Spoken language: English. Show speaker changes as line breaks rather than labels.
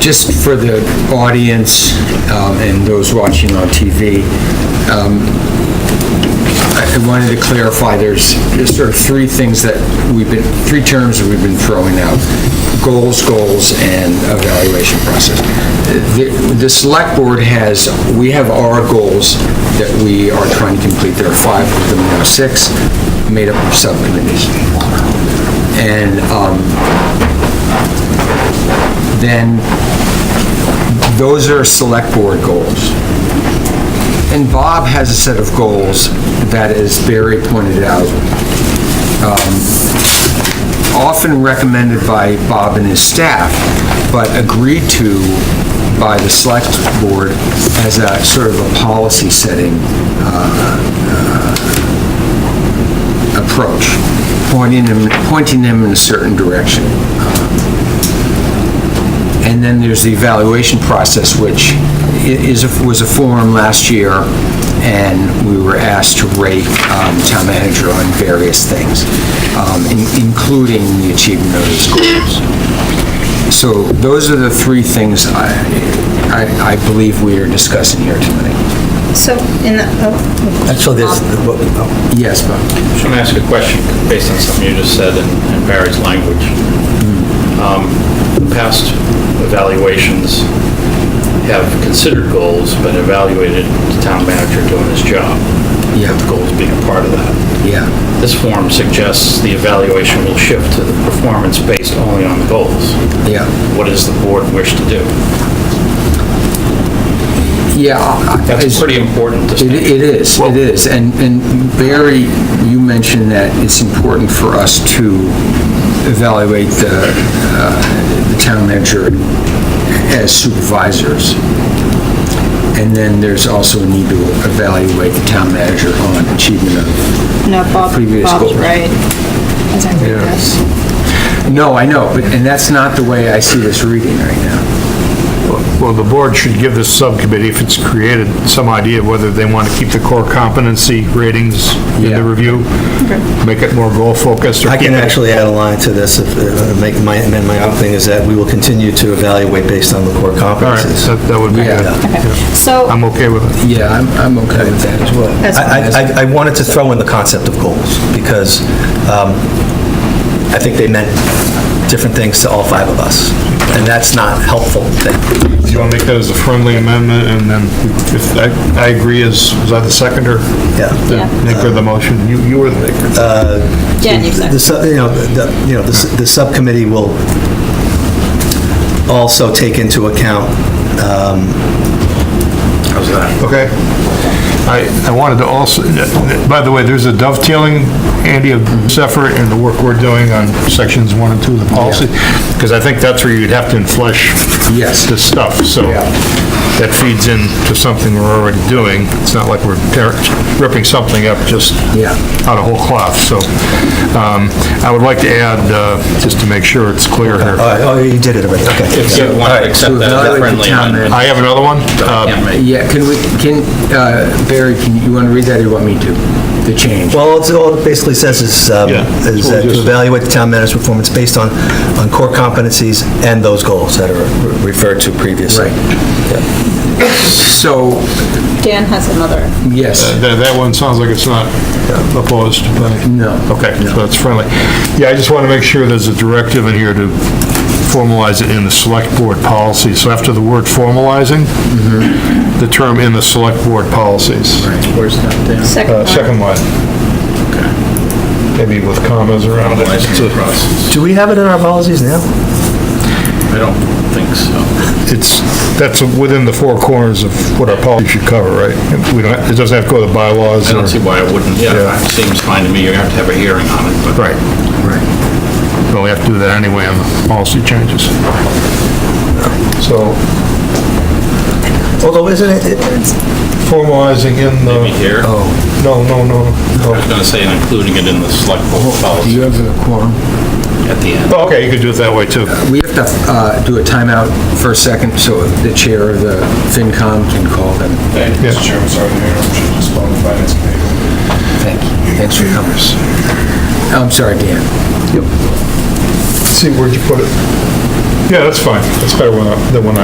Just for the audience um, and those watching on TV, um, I I wanted to clarify, there's there's sort of three things that we've been, three terms that we've been throwing out, goals, goals, and evaluation process. The the select board has, we have our goals that we are trying to complete, there are five of them now, six, made up of subcommittees. And um, then those are select board goals. And Bob has a set of goals that, as Barry pointed out, um, often recommended by Bob and his staff, but agreed to by the select board as a sort of a policy-setting uh, uh, approach, pointing them, pointing them in a certain direction. And then there's the evaluation process, which i- is, a- was a forum last year, and we were asked to rate um, town manager on various things, um, in- including the achievement of his goals. So those are the three things I, I I believe we are discussing here tonight.
So, in the, oh,
And so there's,
Yes, Bob?
Just want to ask a question based on something you just said in in Barry's language. Um, the Past evaluations have considered goals, but evaluated the town manager doing his job.
Yeah.
With Goals being a part of that.
Yeah.
This form suggests the evaluation will shift to the performance based only on the goals.
Yeah.
What does the board wish to do?
Yeah. I- I-
That's
it's-
pretty important to
It
state.
it is, it is. And and Barry, you mentioned that it's important for us to evaluate the uh, the town manager as supervisors. And then there's also a need to evaluate the town manager on achievement of,
no, Bob,
Previous
Bob's
goal.
right. As I read this.
no, I know, but, and that's not the way I see this reading right now.
Well, the board should give this subcommittee, if it's created, some idea of whether they want to keep the core competency ratings in
Yeah.
the review, make it more goal-focused, or
I
keep
can
it-
actually add a line to this, if, uh, make my, amend my own thing, is that we will continue to evaluate based on the core
All right,
competencies.
that that would be
Yeah.
good.
So,
I'm okay with it.
Yeah, I'm I'm okay with that as well.
That's
I, I- I, I wanted to throw in the concept of goals, because um, I think they meant different things to all five of us, and that's not helpful.
Do you want to make that as a friendly amendment, and then if, I- I agree, as, was I the seconder?
Yeah.
The maker of the motion? You, you were the maker.
Jen, you've
The, sub- you know, the, you know, the s- the subcommittee will also take into account, um,
How's that?
Okay. I, I wanted to also, by the way, there's a dovetailing, Andy, of this effort and the work we're doing on sections one and two of the policy, because I think that's where you'd have to flesh
Yes.
this stuff, so
Yeah.
that feeds into something we're already doing. It's not like we're tear- ripping something up just
Yeah.
out of whole cloth, so um, I would like to add, uh, just to make sure it's clear here.
all right, oh, you did it already, okay.
Uh, If you want to accept that as a
evaluate the
friendly
town
amendment.
I have another one. Uh,
Yeah, mate.
Yeah, can we, can, uh, Barry, can you want to read that or you want me to? The change?
Well, it's, all it basically says is, um,
Yeah.
is that to evaluate the town manager's performance based on, on core competencies and those goals that are referred to previously.
Right. So,
Dan has another.
yes.
Uh, That, that one sounds like it's not opposed by...
No.
Okay, so it's friendly. Yeah, I just want to make sure there's a directive in here to formalize it in the select board policy. So after the word formalizing,
Mm-hmm.
the term in the select board policies.
Where's that, Dan?
Second
Uh,
one.
Second line. Maybe with commas around it.
Formalizing the process.
Do we have it in our policies now?
I don't think so.
It's, that's within the four corners of what our policy should cover, right? We don't, it doesn't have to go to the bylaws
I
or...
don't see why it wouldn't.
Yeah.
It seems fine to me. You're going to have to have a hearing on it, but.
Right. Right. Well, we have to do that anyway on the policy changes. So
Although, isn't it- it, it's-
formalizing in the... Oh.
Maybe here.
No, no, no,
I
no.
was going to say, and including it in the select board policy
have a quorum?
at the end.
Oh, Okay, you could do it that way, too.
We have to uh, do a timeout for a second, so the chair of the FinCom can call them.
Thank you,
Yeah.
Mr. Chairman, sorry, Mayor, I'm just responding to the Finance Committee.
Thank you. Thanks for coming. I'm sorry, Dan.
See, where'd you put it? Yeah, that's fine. That's better when I- than when I